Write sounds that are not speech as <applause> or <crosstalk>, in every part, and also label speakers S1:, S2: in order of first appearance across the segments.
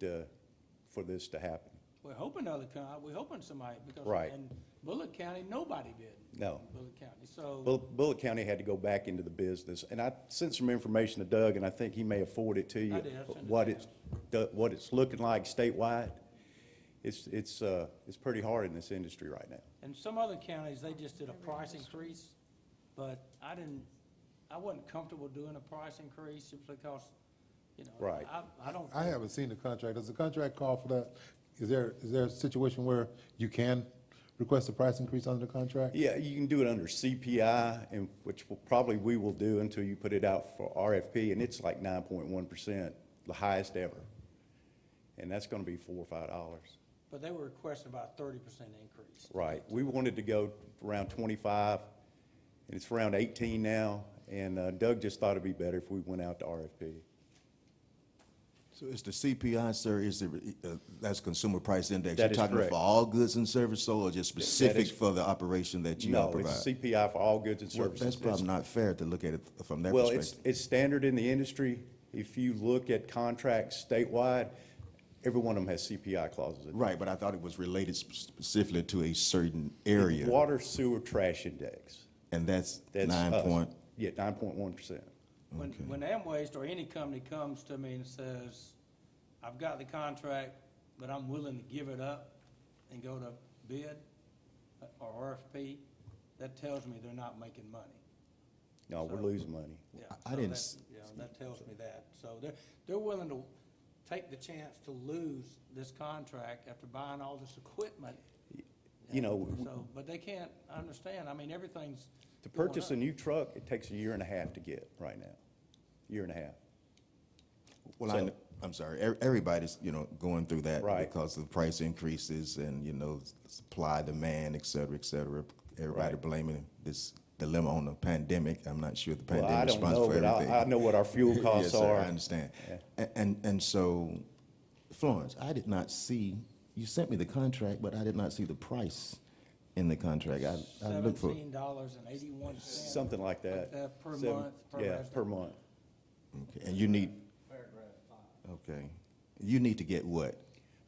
S1: to, for this to happen.
S2: We're hoping other county, we're hoping somebody, because
S1: Right.
S2: in Bullock County, nobody bid.
S1: No.
S2: in Bullock County, so,
S1: Bull- Bullock County had to go back into the business, and I sent some information to Doug, and I think he may have forwarded it to you.
S2: I did, I sent it
S1: What
S2: to
S1: it's, do- what it's looking like statewide, it's, it's, uh, it's pretty hard in this industry right now.
S2: and some other counties, they just did a price increase, but I didn't, I wasn't comfortable doing a price increase simply because, you know.
S1: Right.
S2: I, I don't.
S3: I haven't seen the contract. Does the contract call for that? Is there, is there a situation where you can request a price increase under the contract?
S1: Yeah, you can do it under CPI, and, which will, probably we will do until you put it out for RFP, and it's like nine point one percent, the highest ever. And that's gonna be four or five dollars.
S2: But they were requesting about thirty percent increase.
S1: Right, we wanted to go around twenty-five, and it's around eighteen now, and uh, Doug just thought it'd be better if we went out to RFP.
S4: So it's the CPI, sir, is the, uh, that's Consumer Price Index?
S1: That is
S4: You're talking
S1: correct.
S4: for all goods and services sold, or just specific for the operation that you all
S1: No,
S4: provide?
S1: it's CPI for all goods and
S4: Well,
S1: services.
S4: that's probably
S1: It's-
S4: not fair to look at it from that
S1: Well, it's,
S4: perspective.
S1: it's standard in the industry. If you look at contracts statewide, every one of them has CPI clauses in it.
S4: Right, but I thought it was related sp- specifically to a certain area,
S1: Water sewer trash index.
S4: and that's
S1: That's
S4: nine
S1: us.
S4: point,
S1: Yeah, nine point one percent.
S2: When, when Amway or any company comes to me and says, I've got the contract, but I'm willing to give it up and go to bid or RFP, that tells me they're not making money.
S1: No, we're losing money.
S2: Yeah,
S4: I
S2: so
S4: didn't
S2: that-
S4: s-
S2: Yeah, that tells me that. So they're, they're willing to take the chance to lose this contract after buying all this equipment.
S1: You know, Oh, w-
S2: So, but they can't understand. I mean, everything's.
S1: to
S2: going
S1: purchase
S2: up.
S1: a new truck, it takes a year and a half to get right now. Year and a half.
S4: well, I,
S1: So-
S4: kn- I'm sorry, e- everybody's, you know, going through that.
S1: Right.
S4: Because of price increases and, you know, s- supply, demand, et cetera, et cetera. Everybody
S1: Right.
S4: blaming this dilemma on the pandemic. I'm not sure the
S1: Well, I
S4: pandemic
S1: don't
S4: responds
S1: know,
S4: for
S1: but
S4: everything.
S1: I, I know what our fuel costs
S4: <laughs> Yes, sir,
S1: are.
S4: I understand. A- And, and so, Florence, I did not see, you sent me the contract, but I did not see the price in the contract. I, I looked uh, for,
S2: Seventeen dollars and eighty-one cents.
S1: Something like that.
S2: that Uh, per
S1: Seven-
S2: month, per
S1: Yeah,
S2: resident.
S1: per month.
S4: okay, and you need. Okay. You need to get what?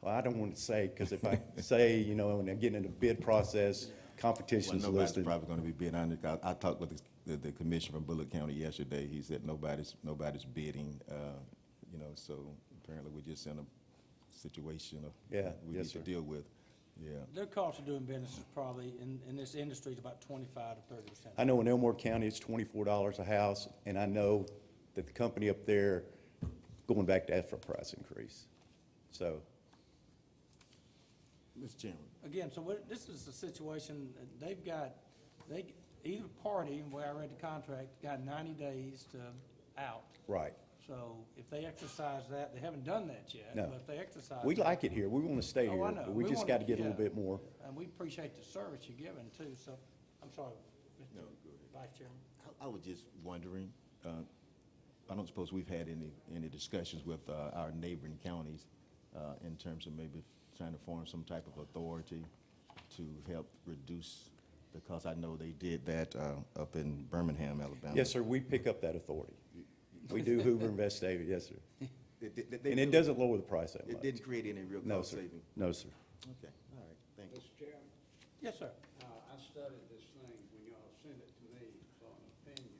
S1: Well, I don't want to say, because if
S4: <laughs>
S1: I say, you know, and I'm getting in the bid process, competition's
S4: Nobody's
S1: listed.
S4: probably gonna be bidding on it. I, I talked with the- the, the commissioner from Bullock County yesterday. He said nobody's, nobody's bidding, uh, you know, so apparently we're just in a situation of.
S1: Yeah,
S4: We
S1: yes,
S4: need to
S1: sir.
S4: deal with, yeah.
S2: Their cost of doing business is probably, in, in this industry, is about twenty-five to thirty percent.
S1: I know in Elmore County, it's twenty-four dollars a house, and I know that the company up there, going back to ask for a price increase. So,
S4: Mr. Chairman.
S2: Again, so what, this is a situation, that they've got, they, either party, where I read the contract, got ninety days to out.
S1: right.
S2: So if they exercise that, they haven't done that yet,
S1: No.
S2: but if they exercise.
S1: We
S2: that-
S1: like it here. We want to stay
S2: Uh, Oh,
S1: here,
S2: I know.
S1: but we just
S2: want-
S1: got to get a little
S2: yeah.
S1: bit more.
S2: And we appreciate the service you're giving too, so, I'm sorry, Mr. Vice Chairman.
S4: I I was just wondering, uh, I don't suppose we've had any, any discussions with uh, our neighboring counties uh, in terms of maybe trying to form some type of authority to help reduce, because I know they did that uh, up in Birmingham, Alabama.
S1: Yes, sir, we pick up that authority. We
S2: <laughs>
S1: do Hoover and Vestavia, yes, sir. And it doesn't lower the price that much.
S4: create any real
S1: No, sir. No, sir.
S4: Okay, all right, thank you.
S5: Mr. Chairman,
S2: Yes, sir.
S5: uh, I studied this thing when y'all sent it to me for an opinion.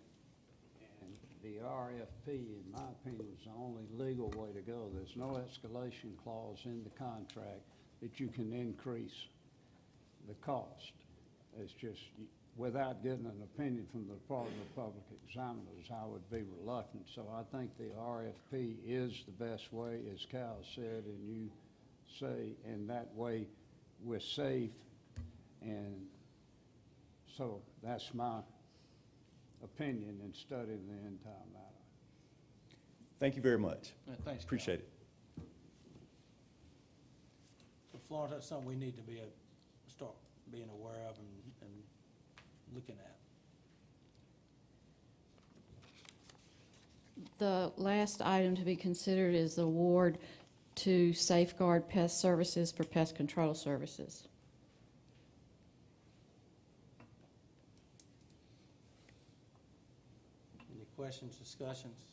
S5: And the RFP, in my opinion, is the only legal way to go. There's no escalation clause in the contract that you can increase the cost. It's just, y- without getting an opinion from the Department of Public Examiners, I would be reluctant. So I think the RFP is the best way, as Cal said, and you say, and that way we're safe. And so that's my opinion in studying the entire matter.
S1: Thank you very much.
S2: Yeah, Thanks. Cal.
S1: Appreciate it.
S2: So Florence, that's something we need to be, a- start being aware of and, and looking at.
S6: The last item to be considered is the award to Safeguard Pest Services for pest control services.
S2: Any questions, discussions?